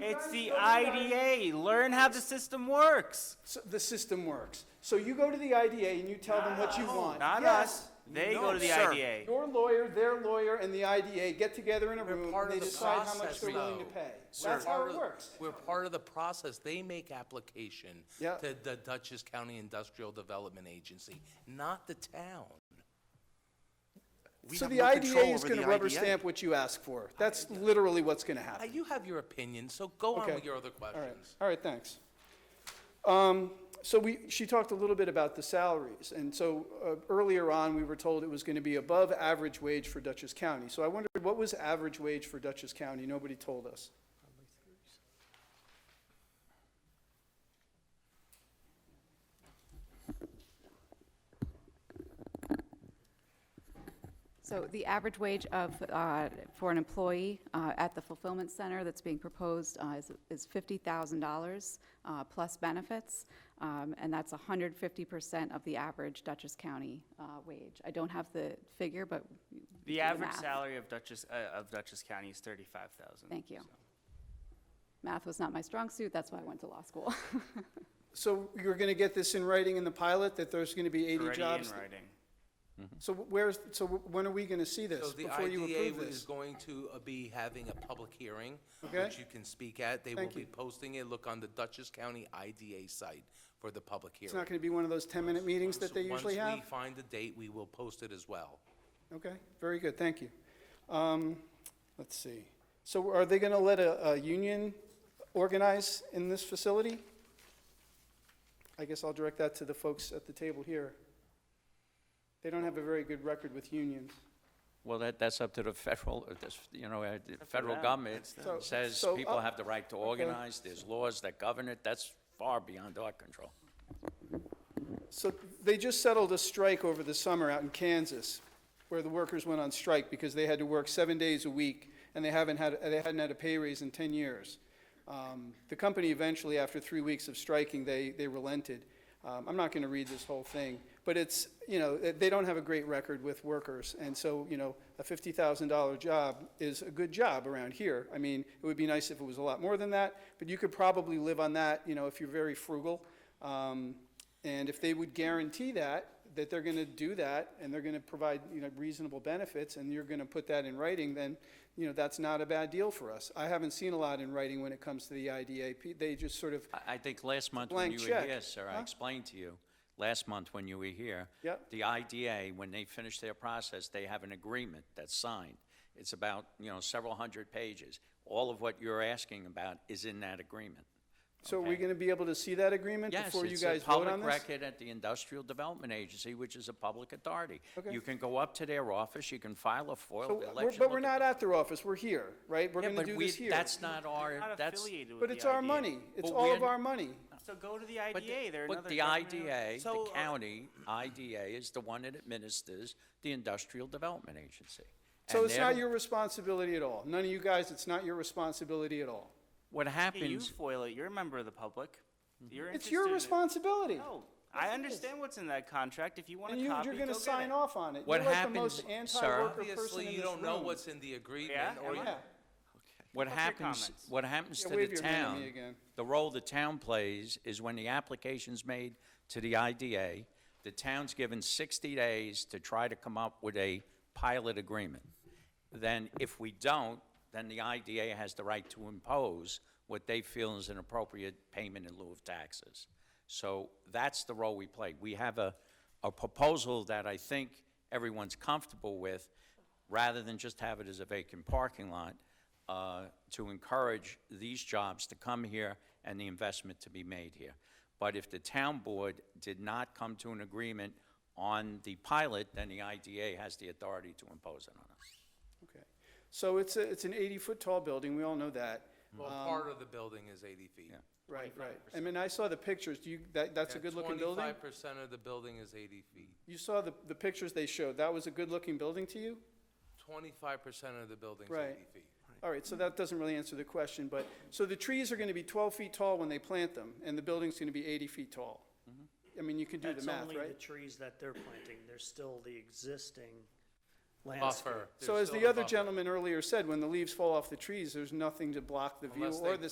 It's the IDA. Learn how the system works. So the system works. So you go to the IDA and you tell them what you want. Not Yes. us. They No, go to the sir. IDA. Your lawyer, their lawyer, and the IDA get together in a We're room, part and of they the decide how much process, they're willing to though. pay. We're That's how part it of- works. We're part of the process. They make application Yeah. to the Dutchess County Industrial Development Agency, not the town. We So have the no control IDA is over gonna the rubber IDA. stamp what you ask for. That's literally what's gonna Uh, happen. You have your opinion, so go on Okay. with your other All right, questions. all right, thanks. Um, so we, she talked a little bit about the salaries, and so, uh, earlier on, we were told it was gonna be above average wage for Dutchess County. So I wondered, what was average wage for Dutchess County? Nobody told us. So the average wage of, uh, for an employee uh, at the fulfillment center that's being proposed uh, is- is $50,000 uh, plus benefits, um, and that's 150% of the average Dutchess County uh, wage. I don't have the figure, but. you can do The average math. salary of Dutchess, uh, of Dutchess County is thirty-five thousand. Thank you. Math was not my strong suit, that's why I went to law school. So you're gonna get this in writing in the pilot, that there's gonna be eighty Already in jobs? writing. So where's, so when are we gonna see So this? the Before you IDA approve is this? going to uh, be having a public hearing, Okay. which you can speak at. They will Thank be you. posting it. Look on the Dutchess County IDA site for the public It's not hearing. gonna be one of those ten-minute meetings that they So usually Once have? we find the date, we will post it as well. Okay, very good, thank you. Um, let's see. So are they gonna let a, a union organize in this facility? I guess I'll direct that to the folks at the table here. They don't have a very good record with unions. Well, that, that's up to the federal, uh, this, you know, uh, the federal them. government them. says So- uh, so people up- have the right to organize, there's laws that govern it, that's far beyond our control. So they just settled a strike over the summer out in Kansas, where the workers went on strike because they had to work seven days a week, and they haven't had, they hadn't had a pay raise in 10 years. Um, The company eventually, after three weeks of striking, they, they relented. Um, I'm not going to read this whole thing, but it's, you know, they- they don't have a great record with workers, and so, you know, a $50,000 job is a good job around here. I mean, it would be nice if it was a lot more than that, but you could probably live on that, you know, if you're very frugal. Um, and if they would guarantee that, that they're gonna do that, and they're gonna provide, you know, reasonable benefits, and you're gonna put that in writing, then, you know, that's not a bad deal for us. I haven't seen a lot in writing when it comes to the IDA. P- They just sort of, I, I think last month when blank you were check, here, sir, huh? I explained to you, last month when you were here, Yep. the IDA, when they finish their process, they have an agreement that's signed. It's about, you know, several hundred pages. All of what you're asking about is in that agreement. so are we Okay. gonna be able to see that agreement Yes, before you it's a guys vote on public this? record at the Industrial Development Agency, which is a public authority. Okay. You can go up to their office, you can file a So FOIL we're- election. But we're look not the- at their office, we're here, right? We're Yeah, gonna but do we- this here. That's not our, Not that's, affiliated with But the it's our IDA. money, it's But all of we're- our money. So go to the but the- IDA. They're but another the government- IDA, So, the uh, county IDA is the one that administers the Industrial Development Agency. So And it's they're not the- your responsibility at all. None of you guys, it's not your responsibility at all. What Hey, you happens, foil it. You're a member of the public. You're Mm-hmm. It's interested your in it. responsibility. Oh, No, I understand what's in that contract. If you want And a you, copy, you're go gonna get sign it. off on it. What You're like the happens, most sir? anti-worker person Obviously, in you this don't know room. what's in the agreement, Yeah, or am you I? Yeah. what What's your happens, comments? what happens Yeah, to the wave your hand at me town, again. the role the town plays is when the application's made to the IDA, the town's given 60 days to try to come up with a pilot agreement. Then if we don't, then the IDA has the right to impose what they feel is an appropriate payment in lieu of taxes. So that's the role we play. We have a, a proposal that I think everyone's comfortable with, rather than just have it as a vacant parking lot, uh, to encourage these jobs to come here and the investment to be made here. But if the town board did not come to an agreement on the pilot, then the IDA has the authority to impose it on us. Okay. So it's a, it's an eighty-foot tall building, we all know that. well, um, part of the building is 80 feet. Right, right. I mean, I saw the pictures, do you, that, that's a good-looking building? Twenty-five percent of the building is eighty feet. You saw the, the pictures they showed, that was a good-looking building to you? Twenty-five percent of the building's Right. eighty feet. All right, so that doesn't really answer the question, but, so the trees are gonna be twelve feet tall when they plant them, and the building's gonna be eighty feet tall. Mm-hmm. I mean, you can do the That's math, only the right? trees that they're planting. There's still the existing landscape. Buffer. So There's as still the a other buffer. gentleman earlier said, when the leaves fall off the trees, there's nothing to block the view Unless they or the